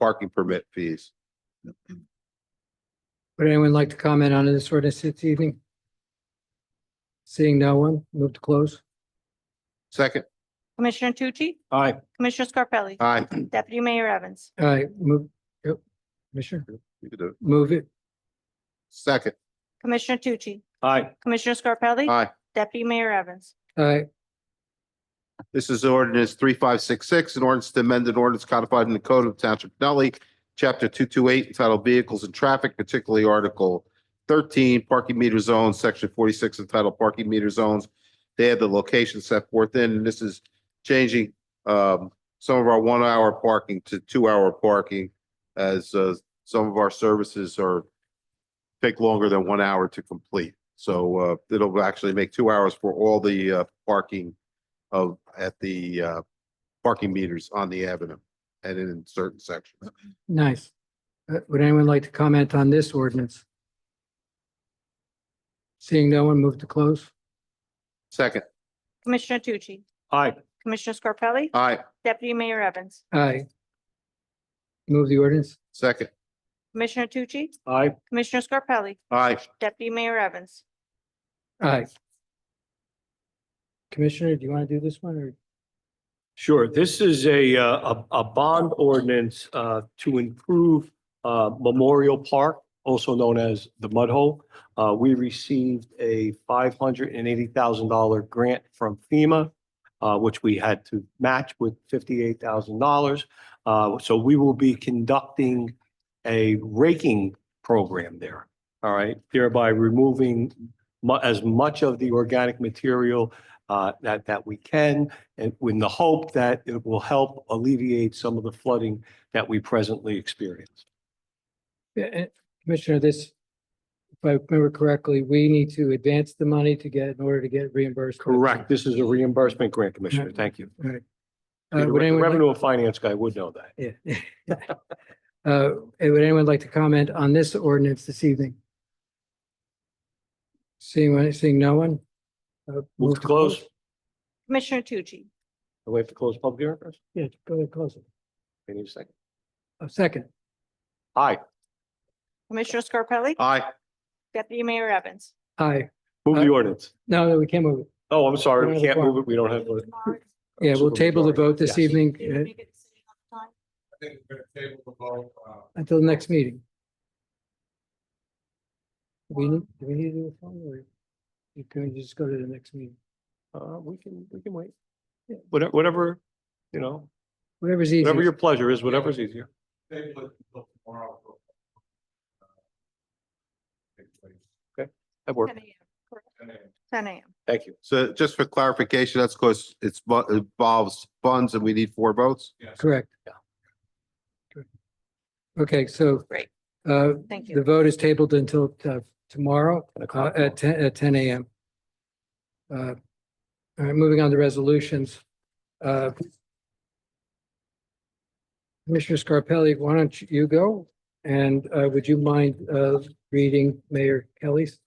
parking permit fees. Would anyone like to comment on this ordinance this evening? Seeing no one, move to close. Second, Commissioner Tucci? Aye. Commissioner Scarpelli? aye. Deputy Mayor Evans? All right, move, yep, Commissioner, You can do it. move it. Second, Commissioner Tucci? Aye. Commissioner Scarpelli? aye. Deputy Mayor Evans? All right, This is ordinance three, five, six, six, an ordinance to amend an ordinance codified in the Code of Township of Nutley, Chapter two, two, eight, entitled Vehicles and Traffic, particularly Article thirteen, Parking Meter Zones, Section forty-six, entitled Parking Meter Zones. They have the location set forth in, and this is changing um some of our one-hour parking to two-hour parking as uh some of our services are take longer than one hour to complete. So uh it'll actually make two hours for all the uh parking of, at the uh, parking meters on the avenue and in certain sections. nice. Uh, Would anyone like to comment on this ordinance? Seeing no one, move to close. Second, Commissioner Tucci? Aye. Commissioner Scarpelli? aye, Deputy Mayor Evans? Aye. Move the ordinance. second, Commissioner Tucci? Aye. Commissioner Scarpelli? aye. Deputy Mayor Evans? Aye. Commissioner, do you want to do this one or? Sure. This is a, uh, a, a bond ordinance, uh, to improve, uh, Memorial Park, also known as the Mud Hole. Uh, we received a five hundred and eighty thousand dollar grant from FEMA, uh, which we had to match with fifty-eight thousand dollars. Uh, so we will be conducting a raking program there. All right, thereby removing mu- as much of the organic material, uh, that, that we can and with the hope that it will help alleviate some of the flooding that we presently experience. Yeah, and Commissioner, this, if I remember correctly, we need to advance the money to get, in order to get reimbursed. for the- Correct. This is a reimbursement grant, Commissioner. Thank you. All right. Uh, The would anyone like- Revenue and finance guy would know that. Yeah. Uh, and would anyone like to comment on this ordinance this evening? Seeing, one- seeing no one? uh, Move to close. Commissioner Tucci? We have to close public hearing first. Yeah, go ahead, close it. We need a second. A second. Aye. Commissioner Scarpelli? Aye, Deputy Mayor Evans? Aye. Move Aye. the ordinance. No, no, we can't move it. Oh, I'm We're sorry. We out of can't move quorum. it. We don't have. a- Yeah, we'll table the vote this Yes. evening uh, until the next meeting. Do we, need- do we need to do a phone or you can just go to the next meeting? Uh, we can, we can wait. Yeah, Whatever, whatever, you know, Whatever's whatever your easier. pleasure is, whatever's easier. That works. Ten AM. Thank you. so just for clarification, that's because it's bu- involves funds and we need four votes? Correct. Yeah. Correct. Okay, so. Great. Uh, Thank the you. vote is tabled until uh, tomorrow Ten uh, o'clock. at ten, at ten AM. Uh, All right, moving on to resolutions. Uh, Commissioner Scarpelli, why don't you go? And uh, would you mind uh, reading Mayor Kelly's?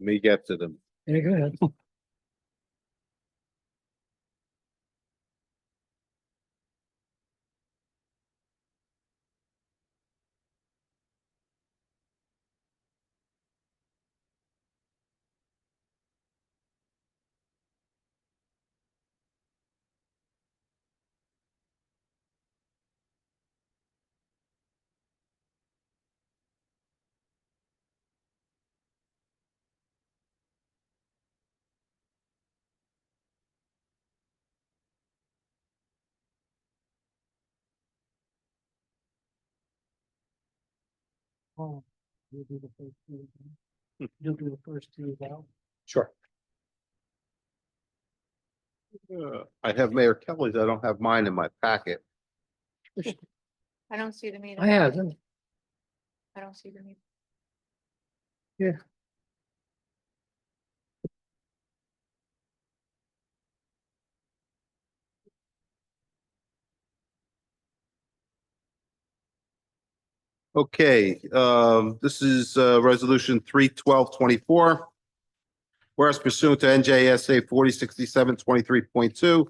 Let me get to them. Yeah, go ahead. You'll Oh, do the first two. You'll do the first two now. Sure. Uh, I have Mayor Kelly's, I don't have mine in my packet. I don't see the meeting. I have them. I don't see the meeting. Okay, um, this is, uh, resolution three twelve twenty-four. Whereas pursuant to NJSA forty sixty-seven twenty-three point two,